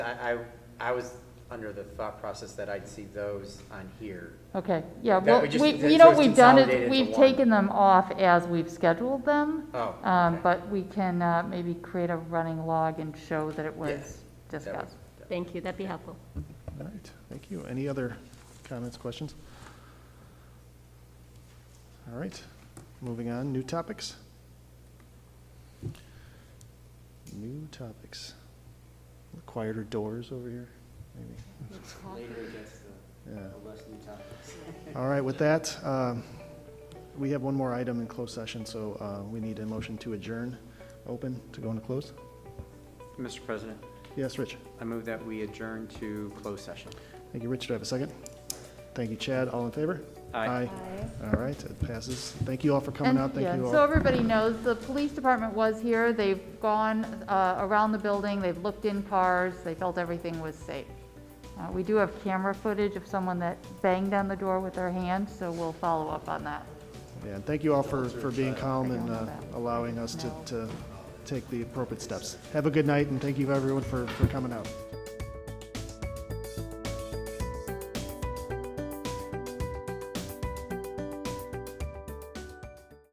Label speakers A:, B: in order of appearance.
A: I, I, I was under the thought process that I'd see those on here.
B: Okay, yeah,
A: That
B: well,
A: we just-
B: we,
A: so
B: you know,
A: it's
B: we've done
A: consolidated
B: it,
A: into
B: we've
A: one.
B: taken them off as we've scheduled them.
A: Oh,
B: Um,
A: okay.
B: but we can, uh, maybe create a running log and show that it was
A: Yes, that
B: discussed.
A: was-
C: Thank you, that'd be helpful.
D: All right, thank you. Any other comments, questions? All right, moving on, new topics. New topics. Quieter doors over here, maybe. Yeah. All right, with that, um, we have one more item in closed session, so uh, we need a motion to adjourn, open, to go into close.
E: Mr. President,
D: Yes, Rich?
E: I move that we adjourn to closed session.
D: Thank you, Rich. Do I have a second? Thank you, Chad. All in favor?
E: Aye.
D: All right, it passes. Thank you all for coming
B: And-
D: out.
B: yeah,
D: Thank you
B: So
D: all.
B: everybody knows, the police department was here, they've gone, uh, around the building, they've looked in cars, they felt everything was safe. Uh, we do have camera footage of someone that banged on the door with their hand, so we'll follow up on that.
D: Yeah, and thank you all for, for being calm and uh,
B: Second one.
D: allowing us to, to take the appropriate steps. Have a good night, and thank you everyone for, for coming out.